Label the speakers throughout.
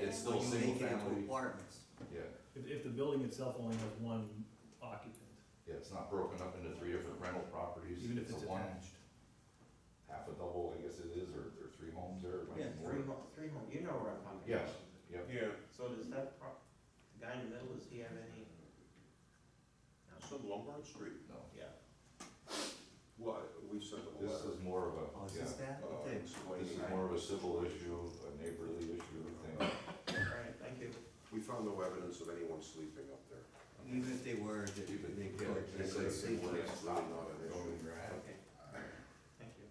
Speaker 1: it's
Speaker 2: Or
Speaker 1: still
Speaker 2: you
Speaker 1: single
Speaker 2: make it into
Speaker 1: family,
Speaker 2: apartments.
Speaker 1: yeah,
Speaker 3: If, if the building itself only has one occupant,
Speaker 1: yeah, it's not broken up into three different rental properties.
Speaker 3: even if it's
Speaker 1: a one,
Speaker 3: attached.
Speaker 1: Half a double, I guess it is, or, or three homes there, it might
Speaker 2: Yeah,
Speaker 1: be more.
Speaker 4: Three home, three home, you know where I'm coming from.
Speaker 1: Yes, yep,
Speaker 5: Yeah,
Speaker 4: So does that prop, the guy in the middle, does he have any?
Speaker 5: it's on Lombard Street.
Speaker 1: no,
Speaker 4: Yeah.
Speaker 5: What, we sent a
Speaker 1: this
Speaker 5: letter.
Speaker 1: is more of
Speaker 2: Oh, is
Speaker 1: a, yeah,
Speaker 2: this that?
Speaker 5: uh,
Speaker 2: Okay.
Speaker 1: this is
Speaker 5: explaining-
Speaker 1: more of a civil issue, a neighborly issue thing.
Speaker 4: All right, thank you.
Speaker 5: We found no evidence of anyone sleeping up there.
Speaker 2: Even if they were, they
Speaker 1: Even-
Speaker 2: they
Speaker 1: yeah,
Speaker 2: could, they
Speaker 1: they
Speaker 2: could
Speaker 1: say
Speaker 2: safely.
Speaker 1: it's not an issue.
Speaker 4: Okay. Thank you.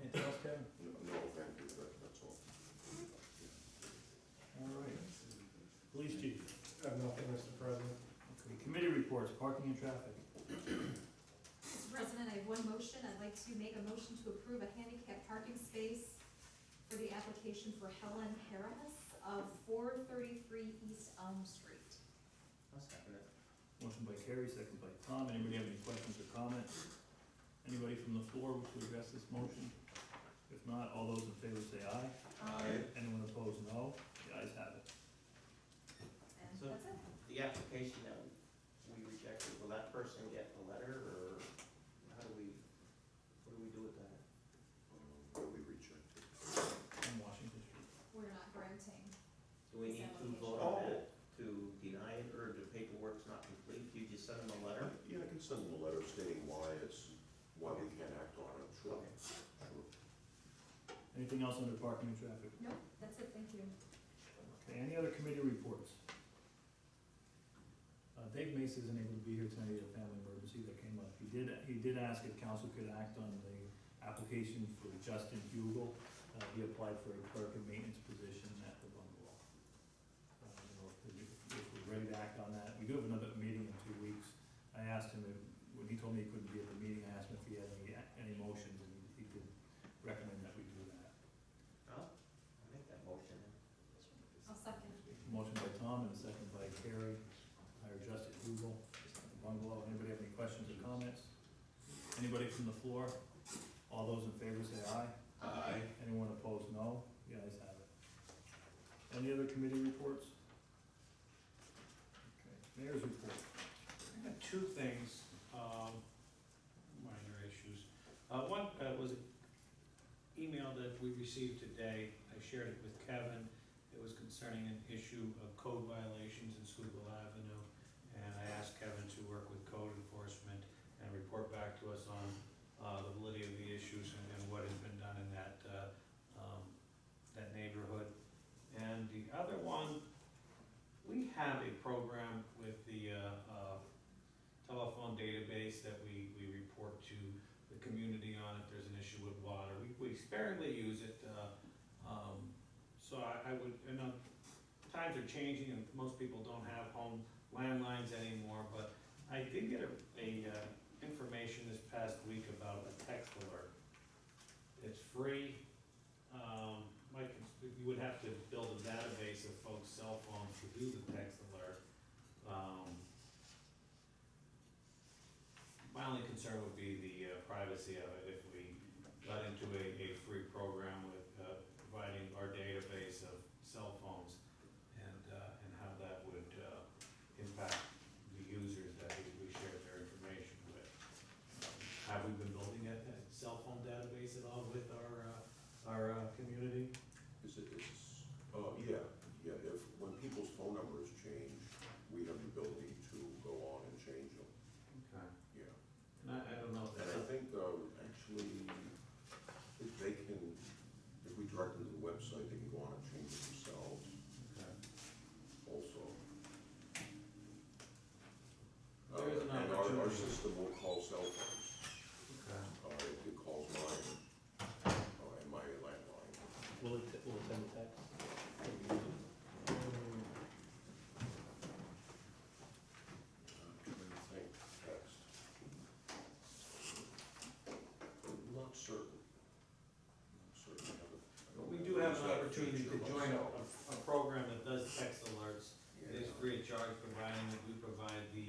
Speaker 3: Anything else, Kevin?
Speaker 5: No, no, thank you, that- that's all.
Speaker 3: All right. Police chief,
Speaker 6: I have nothing, Mr. President.
Speaker 3: okay, committee reports, parking and traffic.
Speaker 7: Mr. President, I have one motion. I'd like to make a motion to approve a handicap parking space for the application for Helen Harris of four thirty-three East Elm Street.
Speaker 4: I'll second it.
Speaker 3: Motion by Carrie, second by Tom. Anybody have any questions or comments? Anybody from the floor wish to address this motion? If not, all those in favor say aye.
Speaker 4: uh,
Speaker 3: Anyone opposed, no. The ayes have it.
Speaker 7: And
Speaker 4: So-
Speaker 7: that's it.
Speaker 4: The application that we rejected, will that person get a letter, or how do we, what do we do with that?
Speaker 5: Um, But we rejected.
Speaker 3: On Washington Street.
Speaker 7: We're not granting.
Speaker 4: Do we need to vote on that, to deny it, or the paperwork's not complete, you just send them a letter?
Speaker 5: Yeah, I can send them a letter stating why it's, why we can't act on it, sure.
Speaker 4: Okay.
Speaker 3: Anything else under parking and traffic?
Speaker 7: Nope, that's it, thank you.
Speaker 3: Okay, any other committee reports? Uh, Dave Mace isn't able to be here tonight, he had a family emergency that came up. He did, he did ask if council could act on the application for Justin Hugel. Uh, he applied for a clerk and maintenance position at the bungalow. Uh, I don't know if we- If we're ready to act on that, we do have another meeting in two weeks. I asked him, if- when he told me he couldn't be at the meeting, I asked him if he had any, any motions, and he could recommend that we do that.
Speaker 4: I'll, I'll make that motion.
Speaker 7: I'll second.
Speaker 3: Motion by Tom and a second by Carrie, hire Justin Hugel, bungalow. Anybody have any questions or comments? Anybody from the floor? All those in favor say aye.
Speaker 5: Aye.
Speaker 3: Anyone opposed, no. The ayes have it. Any other committee reports? Okay. Mayor's report.
Speaker 8: I got two things, um, minor issues. Uh, one, uh, was an email that we received today, I shared it with Kevin. It was concerning an issue of code violations in Schuylkill Avenue, and I asked Kevin to work with code enforcement and report back to us on, uh, the validity of the issues and, and what has been done in that, uh, um, that neighborhood. And the other one, we have a program with the, uh, uh, telephone database that we, we report to the community on if there's an issue with water. We, we sparingly use it, uh, um, so I, I would, and, uh, times are changing and most people don't have home landlines anymore, but I did get a, a, uh, information this past week about a text alert. It's free, um, Mike, you would have to build a database of folks' cell phones to do the text alert. Um, my only concern would be the uh, privacy of it if we got into a, a free program with, uh, providing our database of cell phones and, uh, and how that would, uh, impact the users that we, we share their information with. Have we been building that, that cell phone database at all with our, uh, our, uh, community?
Speaker 5: Is it, is, uh, yeah, yeah, if, when people's phone numbers change, we have the ability to go on and change them,
Speaker 8: Okay.
Speaker 5: yeah.
Speaker 8: And I, I don't know if
Speaker 5: And
Speaker 8: that's
Speaker 5: I think, uh, actually, if they can, if we direct them to the website, they can go on and change it themselves
Speaker 8: okay.
Speaker 5: also.
Speaker 8: There is an
Speaker 5: Uh, And our, our
Speaker 8: opportunity.
Speaker 5: system will call cell phones,
Speaker 8: Okay.
Speaker 5: uh, it it calls mine, uh, and my landline.
Speaker 3: Will it, will it send a text?